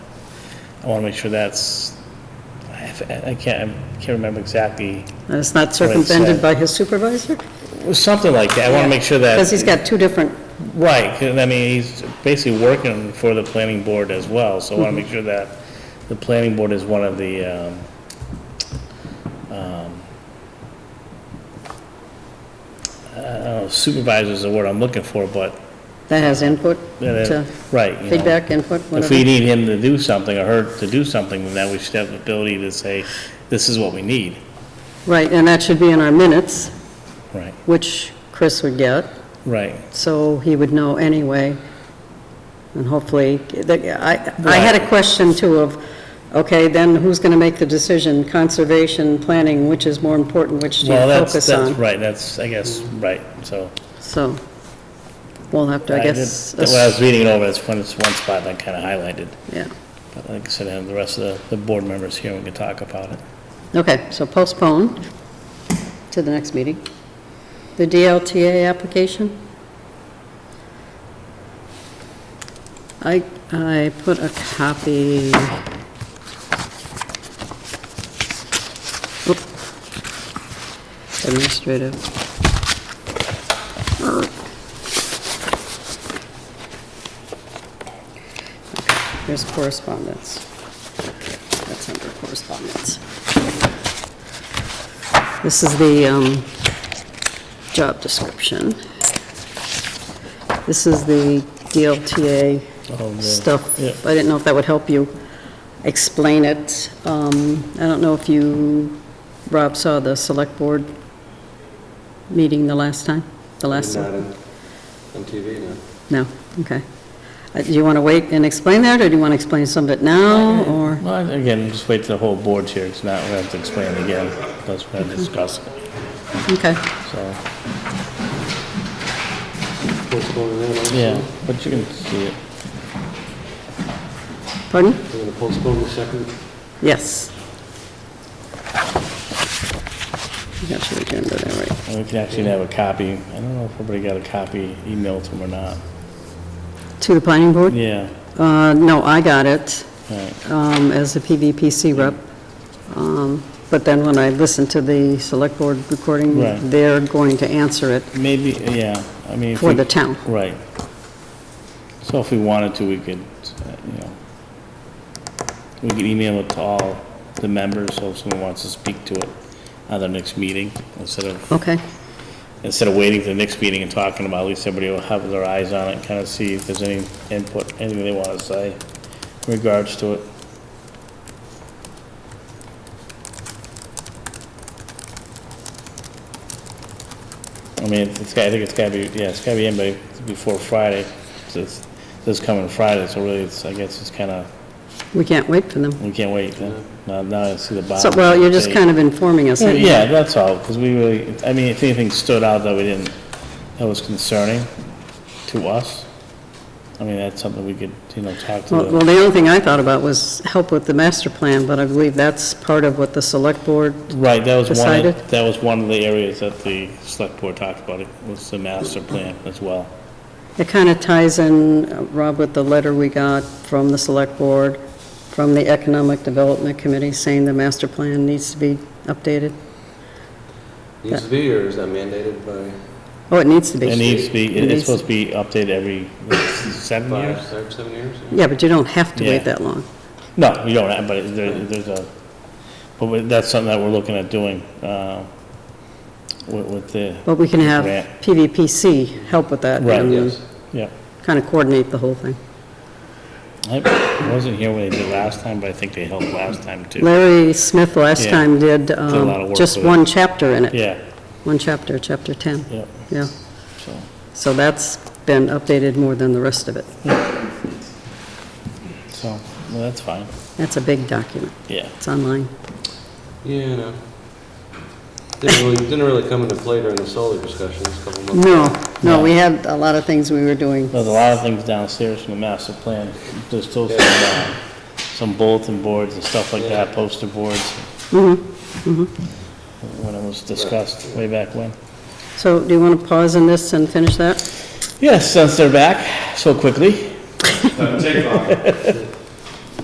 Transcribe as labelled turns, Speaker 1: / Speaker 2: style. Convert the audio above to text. Speaker 1: I want to make sure that's, I I can't, I can't remember exactly,
Speaker 2: And it's not circumvented by his supervisor?
Speaker 1: It was something like that. I want to make sure that.
Speaker 2: Because he's got two different,
Speaker 1: Right, 'cause, I mean, he's basically working for the planning board as well, so I
Speaker 2: Mm-hmm.
Speaker 1: want to make sure that the planning board is one of the, um, um, I don't know, supervisors is the word I'm looking for, but,
Speaker 2: that has input,
Speaker 1: that-
Speaker 2: to
Speaker 1: right, you know.
Speaker 2: feedback, input,
Speaker 1: If we
Speaker 2: whatever.
Speaker 1: need him to do something, or her to do something, then that we should have the ability to say, this is what we need,
Speaker 2: Right, and that should be in our minutes,
Speaker 1: right,
Speaker 2: which Chris would get,
Speaker 1: right.
Speaker 2: so he would know anyway. And hopefully, I, I had a
Speaker 1: Right.
Speaker 2: question too of, okay, then who's going to make the decision? Conservation, planning, which is more important, which do you
Speaker 1: Well, that's,
Speaker 2: focus
Speaker 1: that's,
Speaker 2: on?
Speaker 1: right, that's, I guess, right, so.
Speaker 2: So, we'll have to, I
Speaker 1: did-
Speaker 2: guess.
Speaker 1: When I was reading it over, that's one, it's one spot that I kind of highlighted.
Speaker 2: Yeah.
Speaker 1: But like I said, I have the rest of the, the board members here, we can talk about it.
Speaker 2: Okay, so postpone to the next meeting. The DLTA application? I, I put a copy. Oop. Administrative. Err. Okay, Here's correspondence. That's under correspondence. This is the um, job description. This is the DLTA
Speaker 1: Oh, the- yeah.
Speaker 2: stuff. I didn't know if that would help you explain it. Um, I don't know if you, Rob, saw the select board meeting the last time? The last?
Speaker 3: Not on on TV, no.
Speaker 2: No, okay. Uh, Do you want to wait and explain that, or do you want to explain some of it now, or?
Speaker 1: Well, again, just wait till the whole board's here, it's not, we have to explain it again, because we're gonna discuss it,
Speaker 2: Okay.
Speaker 1: so,
Speaker 3: What's going on there? also?
Speaker 1: yeah, but you can see it.
Speaker 2: Pardon?
Speaker 3: We're going to postpone the second.
Speaker 2: Yes. I got your agenda there, right?
Speaker 1: And we can actually have a copy, I don't know if everybody got a copy emailed to them or not.
Speaker 2: To the planning board?
Speaker 1: Yeah,
Speaker 2: Uh, no, I got it,
Speaker 1: right,
Speaker 2: um, as the PVPC rep. Um, but then when I listened to the select board recording,
Speaker 1: Right.
Speaker 2: they're going to answer it
Speaker 1: maybe, yeah, I mean. if
Speaker 2: for
Speaker 1: we-
Speaker 2: the town.
Speaker 1: Right. So if we wanted to, we could, uh, you know, we could email it to all the members, so if someone wants to speak to it at their next meeting, instead of,
Speaker 2: Okay,
Speaker 1: instead of waiting to the next meeting and talking about, it, at least everybody will have their eyes on it, kind of see if there's any input, anything they want to say in regards to it. I mean, it's, it's gotta- I think it's gotta be, yeah, it's gotta be in by, before Friday, so it's, this coming Friday, so really, it's, I guess it's kinda,
Speaker 2: we can't wait for them.
Speaker 1: we can't wait, huh? now, now I see the bottom.
Speaker 2: So, well, you're just
Speaker 1: They-
Speaker 2: kind of informing us.
Speaker 1: Well,
Speaker 2: anyway.
Speaker 1: Yeah, that's all, because we really, I mean, if anything stood out that we didn't, that was concerning to us, I mean, that's something we could, you know, talk to
Speaker 2: Well, well,
Speaker 1: the,
Speaker 2: the only thing I thought about was help with the master plan, but I believe that's part of what the select board,
Speaker 1: right, that was one,
Speaker 2: Decided?
Speaker 1: of- that was one of the areas that the select board talked about, it was the master plan as well.
Speaker 2: it kind of ties in, uh, Rob, with the letter we got from the select board, from the Economic Development Committee, saying the master plan needs to be updated.
Speaker 3: Needs to be, or is that mandated by
Speaker 2: Oh, it needs to
Speaker 1: It
Speaker 2: be.
Speaker 1: needs to be, it- it's
Speaker 2: Needs-
Speaker 1: supposed to be updated every what, seven years?
Speaker 3: five, six, seven years?
Speaker 2: Yeah, but you don't have to
Speaker 1: Yeah.
Speaker 2: wait that long.
Speaker 1: No, you don't, have, but it- there, there's a, but we- that's something that we're looking at doing, uh, with, with the,
Speaker 2: But we can have
Speaker 1: Grant.
Speaker 2: PVPC help with that
Speaker 1: Right.
Speaker 2: and
Speaker 3: Yes.
Speaker 1: yeah.
Speaker 2: kind of coordinate the whole thing.
Speaker 1: I wasn't here when they did last time, but I think they helped last time too.
Speaker 2: Larry Smith last
Speaker 1: Yeah.
Speaker 2: time did um,
Speaker 1: lot of work
Speaker 2: just
Speaker 1: with it.
Speaker 2: one chapter in it,
Speaker 1: Yeah,
Speaker 2: one chapter, chapter 10,
Speaker 1: yeah,
Speaker 2: yeah.
Speaker 1: so,
Speaker 2: So that's been updated more than the rest of it.
Speaker 1: so, well, that's fine,
Speaker 2: That's a big document.
Speaker 1: yeah.
Speaker 2: It's online.
Speaker 3: Yeah, no. Didn't really, didn't really come into play during the solar discussions a couple months. ago.
Speaker 2: No, no, we had a lot of things we were doing.
Speaker 1: There's a lot of things downstairs from the master plan, there's still some, uh, some bulletin boards and stuff like that, poster boards. When it was discussed way back when.
Speaker 2: So do you want to pause on this and finish that?
Speaker 1: Yes, since they're back so quickly,
Speaker 4: Doesn't take long.